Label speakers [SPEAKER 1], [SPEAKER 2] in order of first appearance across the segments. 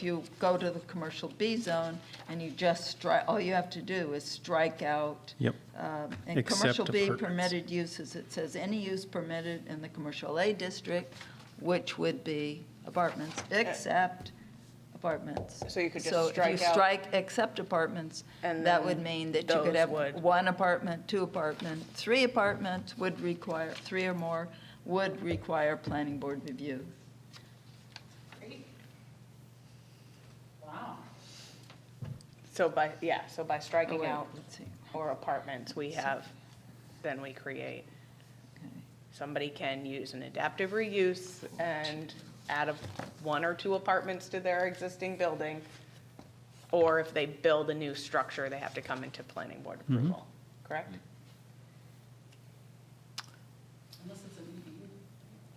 [SPEAKER 1] If you go to the commercial B zone and you just strike, all you have to do is strike out.
[SPEAKER 2] Yep.
[SPEAKER 1] um, And
[SPEAKER 2] Except
[SPEAKER 1] commercial B
[SPEAKER 2] apartments.
[SPEAKER 1] permitted uses, it says any use permitted in the commercial A district, which would be apartments, except apartments.
[SPEAKER 3] So you could just
[SPEAKER 1] So if
[SPEAKER 3] strike
[SPEAKER 1] you
[SPEAKER 3] out-
[SPEAKER 1] strike except apartments,
[SPEAKER 3] And
[SPEAKER 1] that
[SPEAKER 3] then
[SPEAKER 1] would mean that you could
[SPEAKER 3] those
[SPEAKER 1] have
[SPEAKER 3] would-
[SPEAKER 1] one apartment, two apartment, three apartments would require, three or more would require planning board review.
[SPEAKER 3] Wow. So by, yeah, so by
[SPEAKER 1] Oh,
[SPEAKER 3] striking
[SPEAKER 1] wait,
[SPEAKER 3] out
[SPEAKER 1] let's see.
[SPEAKER 3] or apartments, we have, then we create. Somebody can use an adaptive reuse and add a, one or two apartments to their existing building. Or if they build a new structure, they have to come into planning board approval, correct?
[SPEAKER 4] Unless it's an EDU.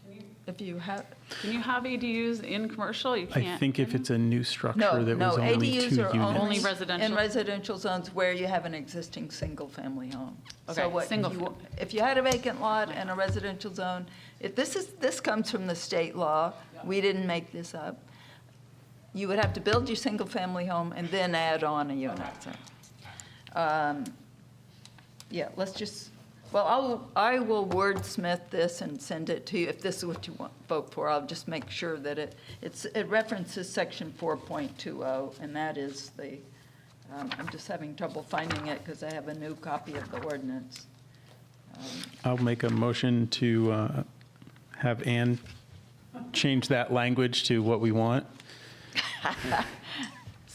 [SPEAKER 4] Can you,
[SPEAKER 1] If you have,
[SPEAKER 4] can you have ADUs in commercial? You can't.
[SPEAKER 2] I think if it's a new structure
[SPEAKER 1] no,
[SPEAKER 2] that
[SPEAKER 1] no,
[SPEAKER 2] was only two
[SPEAKER 1] ADUs are only.
[SPEAKER 2] units.
[SPEAKER 4] Only residential?
[SPEAKER 1] In residential zones where you have an existing single-family home. So
[SPEAKER 4] Okay,
[SPEAKER 1] what
[SPEAKER 4] single
[SPEAKER 1] you-
[SPEAKER 4] fam-
[SPEAKER 1] If you had a vacant lot and a residential zone, if this is, this comes from the state law, we didn't make this up. You would have to build your single-family home and then add on a unit, so. Um, Yeah, let's just, well, I'll, I will wordsmith this and send it to you, if this is what you want, vote for, I'll just make sure that it, it's, it references section 4.20, oh, and that is the, um, I'm just having trouble finding it because I have a new copy of the ordinance.
[SPEAKER 2] I'll make a motion to uh, have Ann change that language to what we want,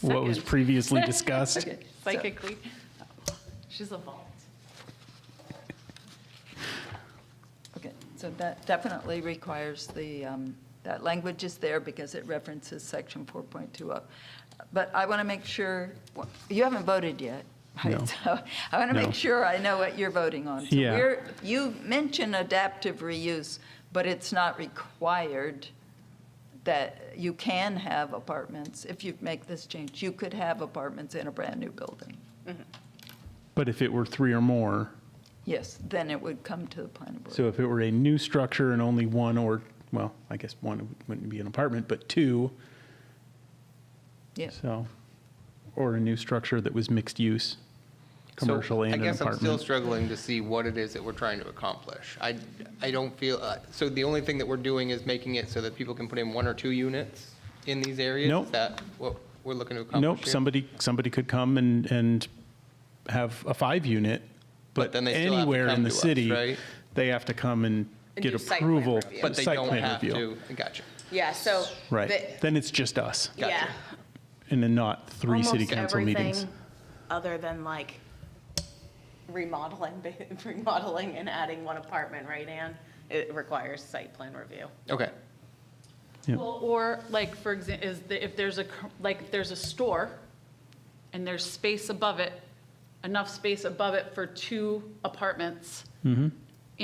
[SPEAKER 2] what was
[SPEAKER 4] Second.
[SPEAKER 2] previously discussed.
[SPEAKER 1] Okay, so-
[SPEAKER 4] Psychically, she's evolved.
[SPEAKER 1] Okay, so that definitely requires the, um, that language is there because it references section 4.20. oh. But I want to make sure, you haven't voted yet. right?
[SPEAKER 2] No.
[SPEAKER 1] So I want to
[SPEAKER 2] No.
[SPEAKER 1] make sure I know what you're voting on. So
[SPEAKER 2] Yeah.
[SPEAKER 1] we're- You mention adaptive reuse, but it's not required that you can have apartments. If you make this change, you could have apartments in a brand-new building.
[SPEAKER 2] But if it were three or more,
[SPEAKER 1] Yes, then it would come to the planning board.
[SPEAKER 2] so if it were a new structure and only one or, well, I guess one wouldn't be an apartment, but two,
[SPEAKER 1] Yes.
[SPEAKER 2] so, or a new structure that was mixed use,
[SPEAKER 5] So,
[SPEAKER 2] commercial and an
[SPEAKER 5] I guess I'm still
[SPEAKER 2] apartment.
[SPEAKER 5] struggling to see what it is that we're trying to accomplish. I, I don't feel, uh, so the only thing that we're doing is making it so that people can put in one or two units in these areas?
[SPEAKER 2] Nope.
[SPEAKER 5] Is that what we're looking to accomplish
[SPEAKER 2] Nope,
[SPEAKER 5] here?
[SPEAKER 2] somebody, somebody could come and, and have a five-unit, but
[SPEAKER 5] then they still have to
[SPEAKER 2] anywhere in
[SPEAKER 5] come
[SPEAKER 2] the
[SPEAKER 5] to us,
[SPEAKER 2] city,
[SPEAKER 5] right?
[SPEAKER 2] they have to come and
[SPEAKER 3] And
[SPEAKER 2] get
[SPEAKER 3] do site plan
[SPEAKER 2] approval.
[SPEAKER 3] review.
[SPEAKER 5] But they
[SPEAKER 2] site
[SPEAKER 5] don't
[SPEAKER 2] plan
[SPEAKER 5] have
[SPEAKER 2] review.
[SPEAKER 5] to, gotcha.
[SPEAKER 3] Yeah, so.
[SPEAKER 2] Right,
[SPEAKER 3] the-
[SPEAKER 2] then it's just us,
[SPEAKER 3] Yeah.
[SPEAKER 5] Gotcha.
[SPEAKER 2] and then not three city
[SPEAKER 3] Almost
[SPEAKER 2] council meetings.
[SPEAKER 3] everything Other than like remodeling, remodeling and adding one apartment, right, Anne? It requires site plan review.
[SPEAKER 5] Okay,
[SPEAKER 2] Yep.
[SPEAKER 4] Well, or like, for example, is, the- if there's a, co- like, if there's a store and there's space above it, enough space above it for two apartments in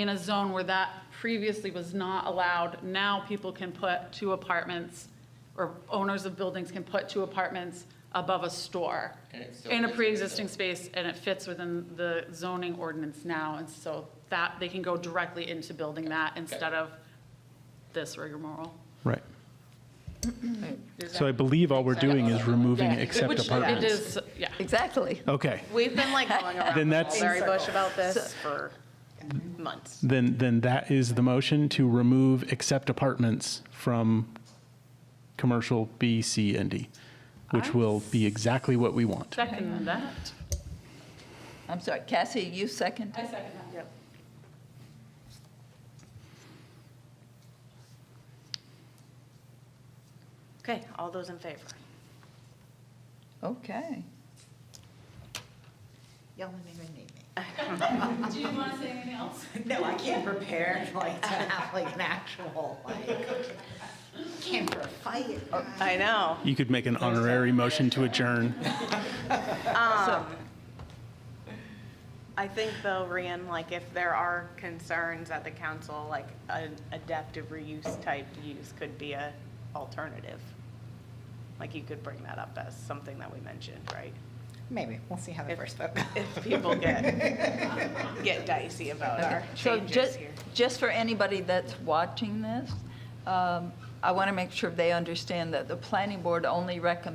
[SPEAKER 4] a zone where that previously was not allowed, now people can put two apartments, or owners of buildings can put two apartments above a store
[SPEAKER 5] And it still
[SPEAKER 4] in a
[SPEAKER 5] fits within the-
[SPEAKER 4] pre-existing space, and it fits within the zoning ordinance now, and so that, they can go directly into building that instead of this rigmarole.
[SPEAKER 2] Right,
[SPEAKER 4] Does that
[SPEAKER 2] so I believe all we're doing is removing except
[SPEAKER 4] Which it
[SPEAKER 2] apartments.
[SPEAKER 4] is, yeah.
[SPEAKER 1] Exactly.
[SPEAKER 2] Okay,
[SPEAKER 3] We've been like going
[SPEAKER 2] Then
[SPEAKER 3] around the
[SPEAKER 2] that's-
[SPEAKER 3] mulberry bush about this for months.
[SPEAKER 2] then, then that is the motion to remove except apartments from commercial B, C, and D, which will be exactly what we want.
[SPEAKER 4] Second that.
[SPEAKER 1] I'm sorry, Cassie, you second?
[SPEAKER 4] I second that.
[SPEAKER 3] Yep. Okay, all those in favor?
[SPEAKER 1] Okay.
[SPEAKER 4] Do you want to say anything else?
[SPEAKER 6] No, I can't prepare like to have like an actual like, can't for a fight.
[SPEAKER 3] I know.
[SPEAKER 2] You could make an honorary motion to adjourn.
[SPEAKER 3] I think though, Ryan, like if there are concerns at the council, like an adaptive reuse type use could be a alternative. Like you could bring that up as something that we mentioned, right?
[SPEAKER 6] Maybe, we'll see how the
[SPEAKER 3] If-
[SPEAKER 6] first vote
[SPEAKER 3] If people get, get dicey about our
[SPEAKER 1] So
[SPEAKER 3] changes
[SPEAKER 1] just,
[SPEAKER 3] here.
[SPEAKER 1] just for anybody that's watching this, um, I want to make sure they understand that the planning board only recommends